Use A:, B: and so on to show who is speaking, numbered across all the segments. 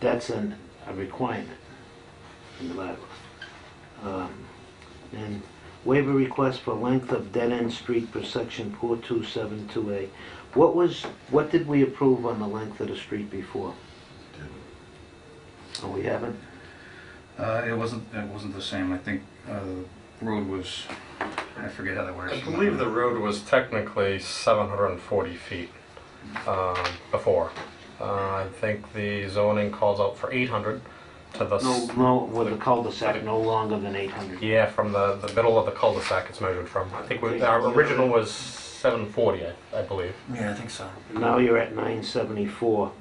A: That's an, a requirement in the bylaw. Um, And waiver request for length of dead-end street per section 4272A. What was, what did we approve on the length of the street before? Oh, we haven't?
B: Uh, it wasn't, it wasn't the same, I think, uh, the road was, I forget how that works.
C: I believe the road was technically 740 feet um, before. Uh, I think the zoning calls out for 800 to the,
A: No,
C: s-
A: no, with the cul-de-sac, no longer than 800.
C: yeah, from the, the middle of the cul-de-sac it's measured from. I think we- our original was 740, I- I believe.
B: Yeah, I think so.
A: Now you're at 974.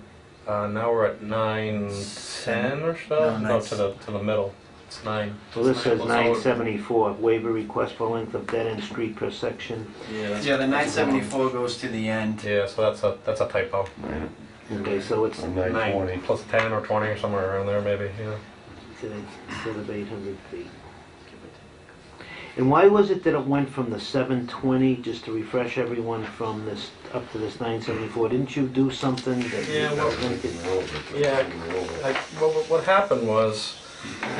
C: Uh, Now we're at 910 or so?
B: No,
C: No,
B: nine-
C: to the, to the middle. It's nine.
A: So this says
C: So-
A: 974, waiver request for length of dead-end street per section.
C: Yeah,
D: Yeah, the nine seventy-four goes to the end.
C: yeah, so that's a, that's a typo.
A: Okay, so it's
C: Nine Plus 10 or 20 or somewhere around there maybe, yeah.
A: to- instead of 800 feet. And why was it that it went from the 720, just to refresh everyone, from this, up to this 974? Didn't you do something that... you
C: Yeah, well-
A: think it-
C: Yeah, like, what, what- what happened was,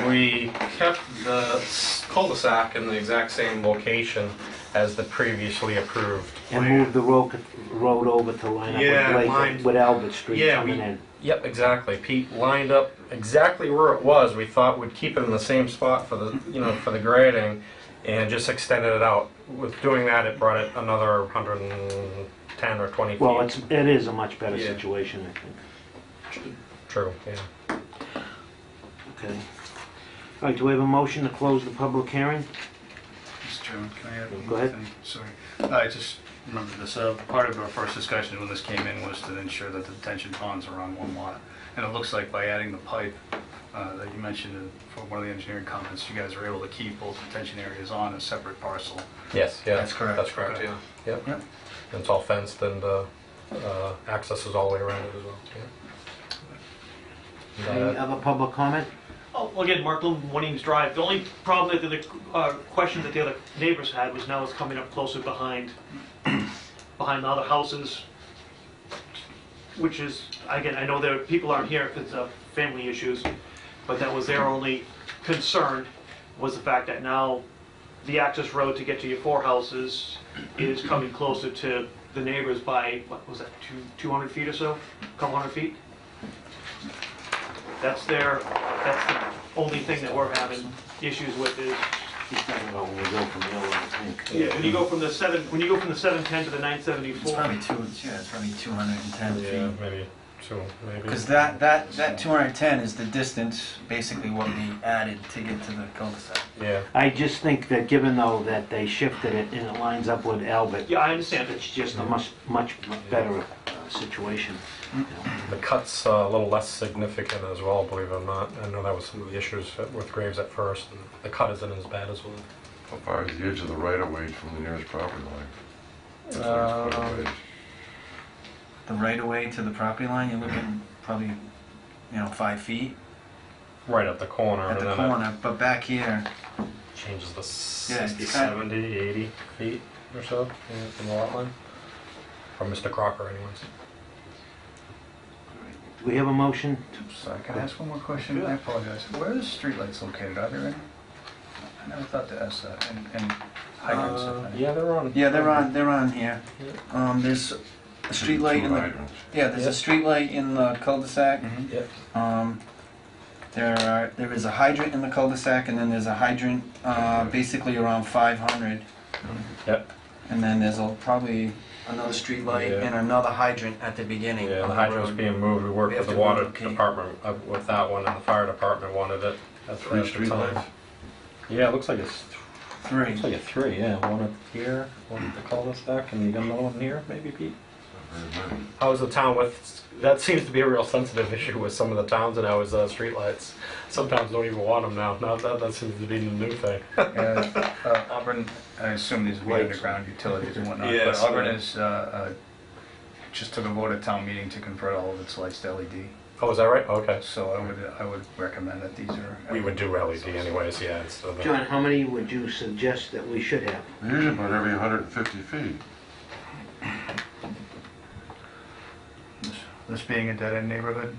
C: we kept the s- cul-de-sac in the exact same location as the previously approved
A: And
C: plan.
A: moved the road, road over to line
C: Yeah,
A: up with Blake,
C: lined-
A: with Albert Street
C: Yeah,
A: coming
C: we-
A: in.
C: Yep, exactly, Pete lined up exactly where it was, we thought we'd keep it in the same spot for the, you know, for the grading, and just extended it out. With doing that, it brought it another hundred and ten or twenty feet.
A: Well, it's, it is a much better
C: Yeah.
A: situation, I think.
C: True, yeah.
A: Okay. All right, do we have a motion to close the public hearing?
B: Mr. Chairman, can I add one
A: Go
B: more
A: ahead.
B: thing? Sorry. I just remembered this, uh, part of our first discussion when this came in was to ensure that the detention ponds are on one lot. And it looks like by adding the pipe, uh, that you mentioned for one of the engineering comments, you guys were able to keep both detention areas on a separate parcel.
C: Yes, yeah.
B: That's correct.
C: That's correct,
B: Okay.
C: yeah. Yep.
B: Yep.
C: And it's all fenced and uh, uh, access is all the way around it as well. yeah.
A: Any
C: Uh,
A: other public comment?
E: Oh, well, again, Mark Bloom, One Eames Drive. The only problem that the, uh, question that the other neighbors had was now it's coming up closer behind, behind the other houses, which is, again, I know there, people aren't here if it's, uh, family issues, but that was their only concern, was the fact that now the access road to get to your four houses is coming closer to the neighbors by, what was that, two, 200 feet or so? Couple hundred feet? That's their, that's the only thing that we're having issues with is,
A: He's talking about when we Oh, go from the other, I think.
E: when you go from the seven, when you go from the seven ten to the nine
D: It's
E: seventy-four,
D: probably two, yeah, it's probably two hundred and ten
C: Yeah,
D: feet.
C: maybe two, maybe.
D: Because that, that, that two hundred and ten is the distance, basically what we added to get to the cul-de-sac.
C: Yeah,
A: I just think that given though that they shifted it and it lines up with Albert,
E: yeah, I understand it.
A: it's just a much, much better uh, situation.
C: the cut's uh, a little less significant as well, believe it or not. I know that was some of the issues with Graves at first. and The cut isn't as bad as well.
F: How far is the edge of the right of way from the nearest property line? That's what it's put
B: Um,
F: away.
D: Uh, The right-of-way to the property line, you're looking probably, you know, five feet
C: Right at the corner
D: at
C: and
D: the
C: then it
D: corner, but back here,
C: changes the
D: Yeah, it's
C: 60,
D: cut.
C: 70, 80 feet or so yeah, from the lot line. From Mr. Crocker anyways.
A: Do we have a motion?
B: Sorry, can I ask one more question? I apologize. Where are the streetlights located? Are there any? I never thought to ask that, and, and hydrants. if
C: Uh,
B: any.
C: Yeah, they're on.
D: yeah, they're on, they're on here.
C: Yeah.
D: Um, there's a street
F: Two
D: light in the,
F: hydrants.
D: yeah, there's a street light in the cul-de-sac.
B: Mhm.
C: Yep.
D: Um, there are, there is a hydrant in the cul-de-sac, and then there's a hydrant, uh, basically around five hundred.
C: Yep.
D: And then there's a, probably another street light
C: Yeah.
D: and another hydrant at the beginning
C: Yeah,
D: of
C: the
D: the
C: hydrant's
D: road.
C: being moved, we worked
D: We
C: with
D: have
C: the
D: to
C: water
D: relocate.
C: department uh, with that one, and the fire department wanted it at the
F: Three
C: at the
F: street
C: time.
F: lights.
C: Yeah, it looks like it's, th-
D: Three.
C: looks like a three, yeah, one up here, one at the cul-de-sac, and you got another one here, maybe, Pete? How's the town with, that seems to be a real sensitive issue with some of the towns and how is, uh, streetlights. Some towns don't even want them now, now that, that seems to be the new thing.
B: Yeah, uh, Auburn, I assume these would be underground utilities and whatnot, but
C: Yes,
B: Auburn
C: yeah.
B: is, uh, uh, just took a vote at town meeting to convert all of its lights to LED.
C: Oh, is that right? Okay.
B: So I would, I would recommend that these are.
C: We would do E LED anyways, yeah, it's, uh, the-
A: John, how many would you suggest that we should have?
F: They usually put every 150 feet.
B: This- This being a dead-end neighborhood,